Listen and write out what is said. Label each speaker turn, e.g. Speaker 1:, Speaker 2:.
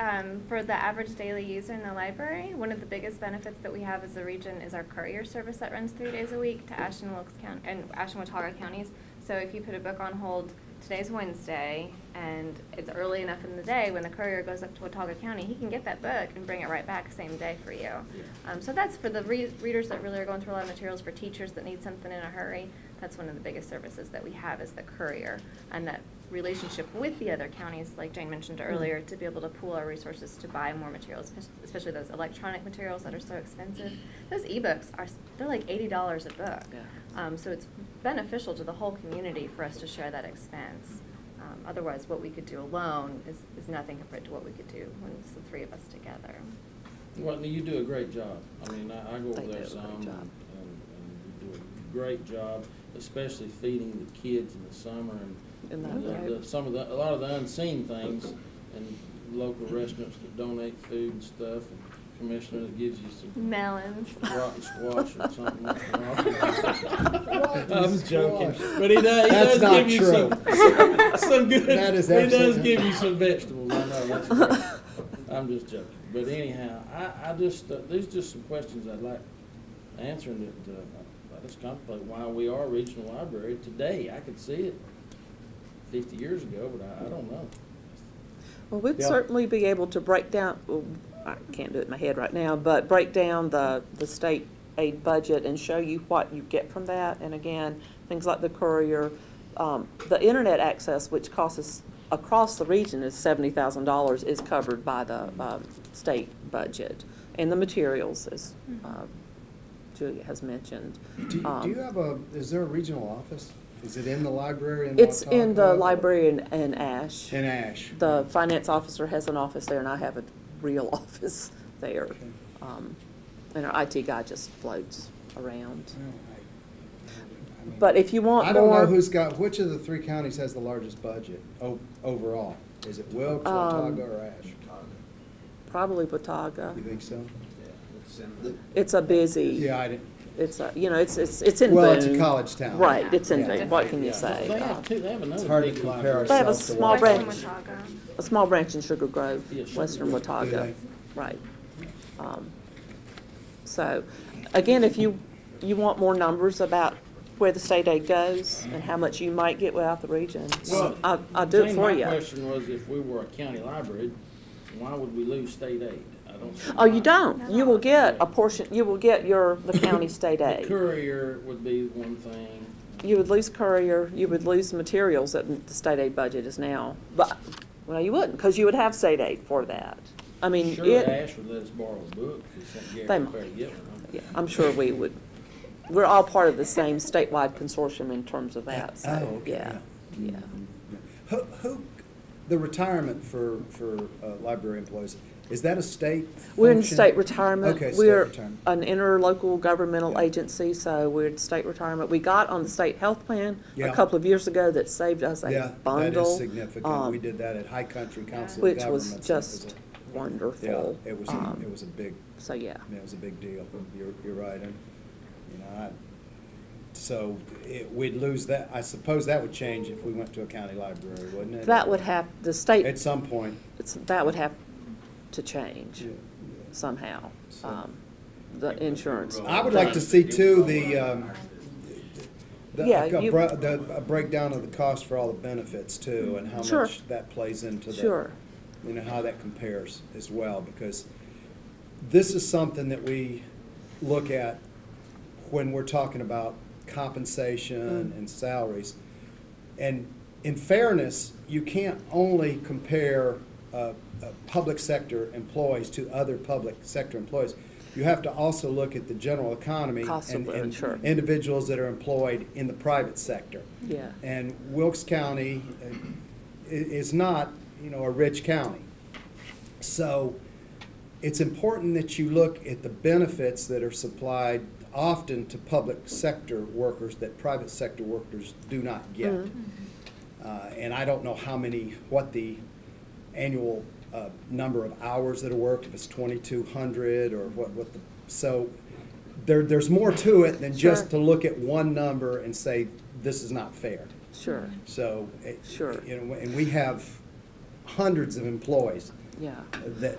Speaker 1: um, for the average daily user in the library, one of the biggest benefits that we have as a region is our courier service that runs three days a week to Ashland, Wilkes County, and Ashland, Watauga counties. So if you put a book on hold, today's Wednesday, and it's early enough in the day when the courier goes up to Watauga County, he can get that book and bring it right back same day for you. Um, so that's for the re- readers that really are going through a lot of materials, for teachers that need something in a hurry. That's one of the biggest services that we have is the courier and that relationship with the other counties, like Jane mentioned earlier, to be able to pool our resources to buy more materials, espec- especially those electronic materials that are so expensive. Those ebooks are, s- they're like eighty dollars a book.
Speaker 2: Yeah.
Speaker 1: Um, so it's beneficial to the whole community for us to share that expense. Um, otherwise, what we could do alone is, is nothing compared to what we could do when it's the three of us together.
Speaker 3: Well, you do a great job. I mean, I, I go over
Speaker 2: They do a
Speaker 3: there
Speaker 2: great
Speaker 3: some, and,
Speaker 2: job.
Speaker 3: and you do a great job, especially feeding the kids in the summer and.
Speaker 2: In that
Speaker 3: the-
Speaker 2: road.
Speaker 3: the- Some of the, a lot of the unseen things, and local restaurants that donate food and stuff, and commissioner that gives you some
Speaker 1: Melons.
Speaker 3: rotten squash or something.
Speaker 4: Rotten
Speaker 3: I'm joking,
Speaker 4: squash.
Speaker 3: but he does, he
Speaker 4: That's
Speaker 3: does
Speaker 4: not
Speaker 3: give you some,
Speaker 4: true.
Speaker 3: some- some good,
Speaker 4: That is
Speaker 3: he does
Speaker 4: absolutely-
Speaker 3: give you some vegetables, I know, that's correct. I'm just joking, but anyhow, I, I just, uh, there's just some questions I'd like answering that, uh, I just contemplate why we are a regional library today, I could see it fifty years ago, but I, I don't know.
Speaker 2: Well, we'd
Speaker 4: Yeah.
Speaker 2: certainly be able to break down, well, I can't do it in my head right now, but break down the, the state aid budget and show you what you get from that. And again, things like the courier, um, the internet access, which costs us, across the region is seventy thousand dollars, is covered by the, um, state budget. And the materials, as, uh, Julia has mentioned.
Speaker 4: Do, do
Speaker 2: Um,
Speaker 4: you have a, is there a regional office? Is it in the library in
Speaker 2: It's in the
Speaker 4: Watauga?
Speaker 2: library in, in Ash.
Speaker 4: In Ash?
Speaker 2: The finance officer has an office there, and I have a real office there.
Speaker 4: Okay.
Speaker 2: Um, And our IT guy just floats around.
Speaker 4: Well, I- I mean,
Speaker 2: But if you want
Speaker 4: I don't know
Speaker 2: more-
Speaker 4: who's got, which of the three counties has the largest budget o- overall? Is it Wilkes,
Speaker 2: Um,
Speaker 4: Watauga, or Ash?
Speaker 2: Probably Watauga.
Speaker 4: You think so?
Speaker 2: It's a busy.
Speaker 4: Yeah, I didn't,
Speaker 2: It's a, you know, it's, it's, it's in Boone.
Speaker 4: Well, it's a college town.
Speaker 2: Right, it's in
Speaker 4: Yeah.
Speaker 2: Boone. What can you say?
Speaker 3: They
Speaker 2: Uh,
Speaker 3: have two, they have
Speaker 4: it's
Speaker 3: another
Speaker 4: hard to
Speaker 3: big
Speaker 4: compare
Speaker 3: library.
Speaker 2: They have a
Speaker 4: ourselves to
Speaker 2: small
Speaker 4: Washington.
Speaker 2: branch.
Speaker 1: Watauga.
Speaker 2: A small branch in Sugar Grove,
Speaker 3: Yeah, Sugar
Speaker 2: western
Speaker 3: Grove.
Speaker 2: Watauga,
Speaker 4: Yeah.
Speaker 2: right. Um, So, again, if you, you want more numbers about where the state aid goes and how much you might get without the region,
Speaker 3: Well,
Speaker 2: I'll, I'll do it
Speaker 3: Jane,
Speaker 2: for
Speaker 3: My
Speaker 2: you.
Speaker 3: question was if we were a county library, why would we lose state aid? I don't. see
Speaker 2: Oh,
Speaker 3: why.
Speaker 2: you don't, you will get
Speaker 3: Yeah.
Speaker 2: a portion, you will get your, the county state
Speaker 3: The
Speaker 2: aid.
Speaker 3: courier would be one thing.
Speaker 2: You would lose courier, you would lose materials that the state aid budget is now, but, well, you wouldn't, because you would have state aid for that. I mean, it.
Speaker 3: Sure, Ash would let us borrow a book, because St. Gary
Speaker 2: They
Speaker 3: would
Speaker 2: might.
Speaker 3: better get one. huh?
Speaker 2: Yeah, I'm sure we would. We're all part of the same statewide consortium in terms of that,
Speaker 4: Oh,
Speaker 2: so,
Speaker 4: okay,
Speaker 2: yeah, yeah.
Speaker 4: Who, who, the retirement for, for uh, library employees, is that a state
Speaker 2: We're in
Speaker 4: function?
Speaker 2: state retirement.
Speaker 4: Okay, state
Speaker 2: We're
Speaker 4: retirement.
Speaker 2: an interlocal governmental
Speaker 4: Yeah.
Speaker 2: agency, so we're in state retirement. We got on the state health plan a
Speaker 4: Yeah.
Speaker 2: couple of years ago that saved us
Speaker 4: Yeah,
Speaker 2: a
Speaker 4: that
Speaker 2: bundle.
Speaker 4: is significant.
Speaker 2: um,
Speaker 4: We did that at High Country Council of
Speaker 2: Which
Speaker 4: Governments.
Speaker 2: was
Speaker 4: It a-
Speaker 2: just wonderful.
Speaker 4: Yeah, it was, a-
Speaker 2: Um,
Speaker 4: it was a big,
Speaker 2: So, yeah.
Speaker 4: I mean, it was a big deal. You're, you're right. And, you know, I, so it, we'd lose that. I suppose that would change if we went to a county library, wouldn't it?
Speaker 2: That would have, the state,
Speaker 4: At some point.
Speaker 2: it's- that would have to change
Speaker 4: yeah.
Speaker 2: somehow,
Speaker 4: So-
Speaker 2: um, the insurance.
Speaker 4: I would like to see too, the, um, the,
Speaker 2: Yeah,
Speaker 4: a
Speaker 2: you-
Speaker 4: bro- the a breakdown of the cost for all the benefits too, and how
Speaker 2: Sure.
Speaker 4: much that plays into the.
Speaker 2: Sure.
Speaker 4: You know, how that compares as well, because this is something that we look at when we're talking about compensation
Speaker 2: Mm-hmm.
Speaker 4: and salaries. And in fairness, you can't only compare uh, uh, public sector employees to other public sector employees. You have to also look at the general economy
Speaker 2: Cost of
Speaker 4: and,
Speaker 2: living,
Speaker 4: and
Speaker 2: sure.
Speaker 4: individuals that are employed in the private sector.
Speaker 2: Yeah.
Speaker 4: And Wilkes County uh, i- is not, you know, a rich county. So it's important that you look at the benefits that are supplied often to public sector workers that private sector workers do not get.
Speaker 2: Mhm.
Speaker 4: Uh, And I don't know how many, what the annual uh, number of hours that are worked, if it's 2,200 or what, what the, so there, there's more to it than just to
Speaker 2: Sure.
Speaker 4: look at one number and say, this is not fair.
Speaker 2: Sure.
Speaker 4: So. it-
Speaker 2: Sure.
Speaker 4: You know, and we have hundreds of employees
Speaker 2: yeah.
Speaker 4: that